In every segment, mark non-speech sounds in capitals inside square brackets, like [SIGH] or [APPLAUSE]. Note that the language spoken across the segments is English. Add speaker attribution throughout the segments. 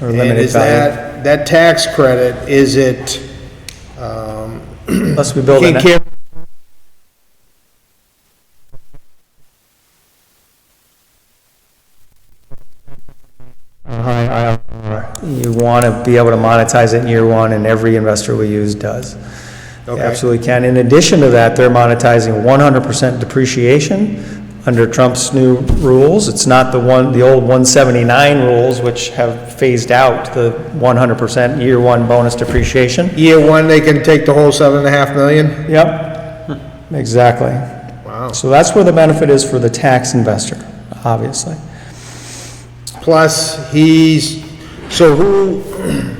Speaker 1: Or
Speaker 2: And
Speaker 1: limited
Speaker 2: is
Speaker 1: value.
Speaker 2: that, that tax credit, is it, um,
Speaker 1: Unless we build
Speaker 2: can
Speaker 1: an,
Speaker 2: carry
Speaker 3: high IRR.
Speaker 1: you want to be able to monetize it in year one, and every investor we use does. They
Speaker 2: Okay.
Speaker 1: Absolutely can. In addition to that, they're monetizing 100% depreciation under Trump's new rules. It's not the one, the old 179 rules, which have phased out the 100% year one bonus depreciation.
Speaker 2: year one, they can take the whole seven and a half million?
Speaker 1: Yep, Hmm. exactly.
Speaker 2: Wow.
Speaker 1: So that's where the benefit is for the tax investor, obviously.
Speaker 2: Plus, he's, so who, [CLEARS THROAT]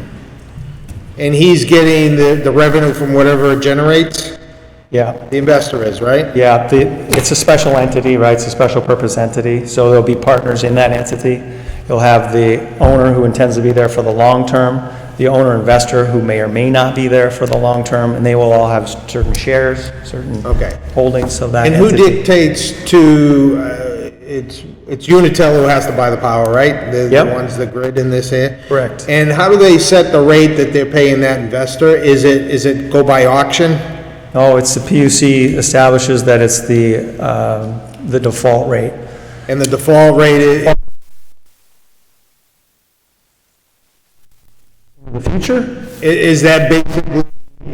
Speaker 2: and he's getting the, the revenue from whatever it generates?
Speaker 1: Yeah,
Speaker 2: The investor is, right?
Speaker 1: yeah, the, it's a special entity, right? It's a special purpose entity, so there'll be partners in that entity. You'll have the owner who intends to be there for the long term, the owner investor who may or may not be there for the long term, and they will all have certain shares, certain
Speaker 2: Okay.
Speaker 1: holdings of that
Speaker 2: And who
Speaker 1: entity.
Speaker 2: dictates to, uh, it's, it's Unitil who has to buy the power, right? They're The
Speaker 1: Yep.
Speaker 2: ones, the grid in this here?
Speaker 1: Correct.
Speaker 2: And how do they set the rate that they're paying that investor? Is it, is it go by auction?
Speaker 1: No, Oh, it's the PUC establishes that it's the, um, the default rate.
Speaker 2: And the default rate is,
Speaker 1: The future?
Speaker 2: i- is that basically,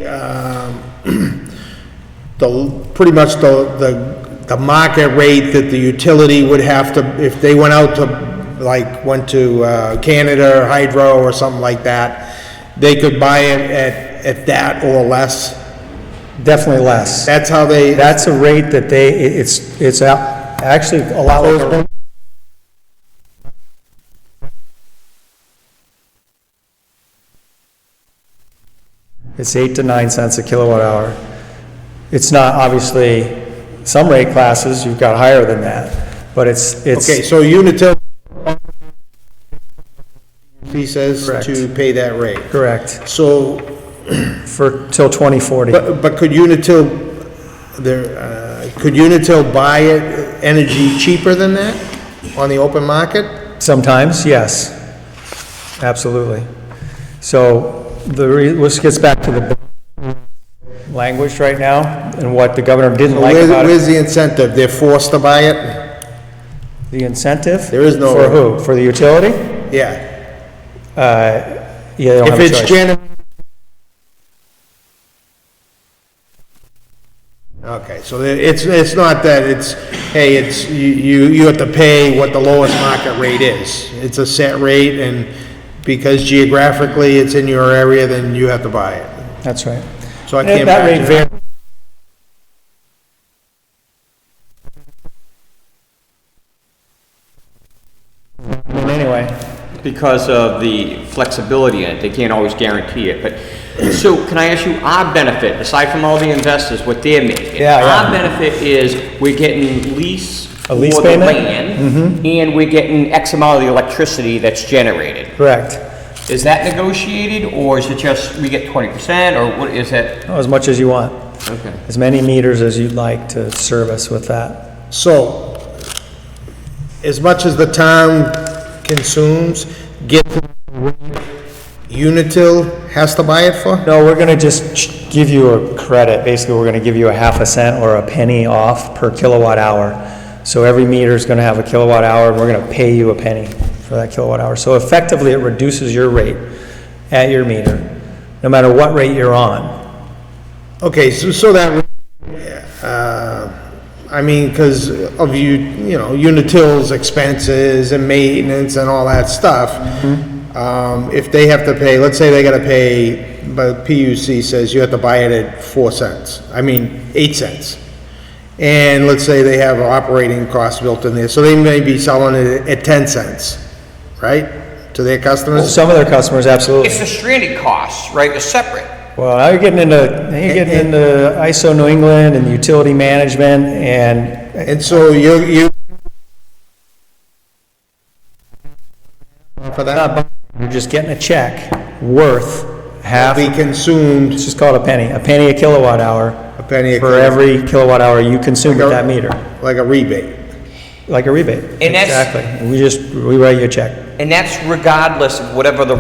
Speaker 2: um, [CLEARS THROAT] the, pretty much the, the, the market rate that the utility would have to, if they went out to, like, went to, uh, Canada or Hydro or something like that, they could buy it at, at that or less?
Speaker 1: Definitely less.
Speaker 2: That's how they,
Speaker 1: That's a rate that they, it- it's, it's a- actually allowed. It's eight to nine cents a kilowatt hour. It's not, obviously, some rate classes, you've got higher than that, but it's,
Speaker 2: okay,
Speaker 1: it's,
Speaker 2: so Unitil he says
Speaker 1: Correct.
Speaker 2: to pay that rate.
Speaker 1: correct,
Speaker 2: So,
Speaker 1: for, till 2040.
Speaker 2: but, but could Unitil, there, uh, could Unitil buy it, energy cheaper than that on the open market?
Speaker 1: Sometimes, yes. Absolutely. So the, re- this gets back to the language right now and what the governor didn't like
Speaker 2: Where's,
Speaker 1: about it.
Speaker 2: where's the incentive? They're forced to buy it?
Speaker 1: The incentive?
Speaker 2: There is no-
Speaker 1: For who? For the utility?
Speaker 2: Yeah.
Speaker 1: Yeah, they don't
Speaker 2: If
Speaker 1: have a
Speaker 2: it's
Speaker 1: choice.
Speaker 2: gen. Okay, so there- it's, it's not that it's, hey, it's, you, you you have to pay what the lowest market rate is. It's a set rate and because geographically it's in your area, then you have to buy it.
Speaker 1: That's right.
Speaker 2: So I
Speaker 1: That-
Speaker 2: can't
Speaker 1: That rate
Speaker 2: imagine.
Speaker 1: varies. Well, Anyway,
Speaker 3: Because of the flexibility in it, they can't always guarantee it, but, so can I ask you, our benefit, aside from all the investors, what they're making?
Speaker 1: Yeah, yeah.
Speaker 3: Our benefit is we're getting lease
Speaker 1: A
Speaker 3: for the
Speaker 1: lease payment? Mm-hmm.
Speaker 3: land, and we're getting X amount of the electricity that's generated.
Speaker 1: correct.
Speaker 3: Is that negotiated, or is it just we get twenty percent, or what is that?
Speaker 1: As much as you want,
Speaker 3: Okay.
Speaker 1: as many meters as you'd like to service with that.
Speaker 2: So, as much as the town consumes, get, Unitil has to buy it for?
Speaker 1: No, we're going to just ch- give you a credit. Basically, we're going to give you a half a cent or a penny off per kilowatt hour. So every meter is going to have a kilowatt hour, and we're going to pay you a penny for that kilowatt hour. So effectively, it reduces your rate at your meter, no matter what rate you're on.
Speaker 2: Okay, so, so that, uh, I mean, because of you, you know, Unitil's expenses and maintenance and all that stuff. Um, if they have to pay, let's say they gotta pay, but PUC says you have to buy it at four cents, I mean, eight cents. And let's say they have operating costs built in there, so they may be selling it at ten cents, right? To their customers?
Speaker 1: Some of their customers, absolutely.
Speaker 3: It's the stranded costs, right, they're separate.
Speaker 1: Well, now you're getting into, now you're getting into ISO New England and utility management and
Speaker 2: And so you, you. For that?
Speaker 1: not buying, you're just getting a check worth half,
Speaker 2: We
Speaker 1: it's
Speaker 2: consumed
Speaker 1: just called a penny, a penny a kilowatt hour.
Speaker 2: a penny a
Speaker 1: for
Speaker 2: kilowatt,
Speaker 1: every kilowatt hour you consume at that meter,
Speaker 2: like a rebate.
Speaker 1: like a rebate.
Speaker 3: And that's-
Speaker 1: Exactly. We just, we write you a check.
Speaker 3: And that's regardless of whatever the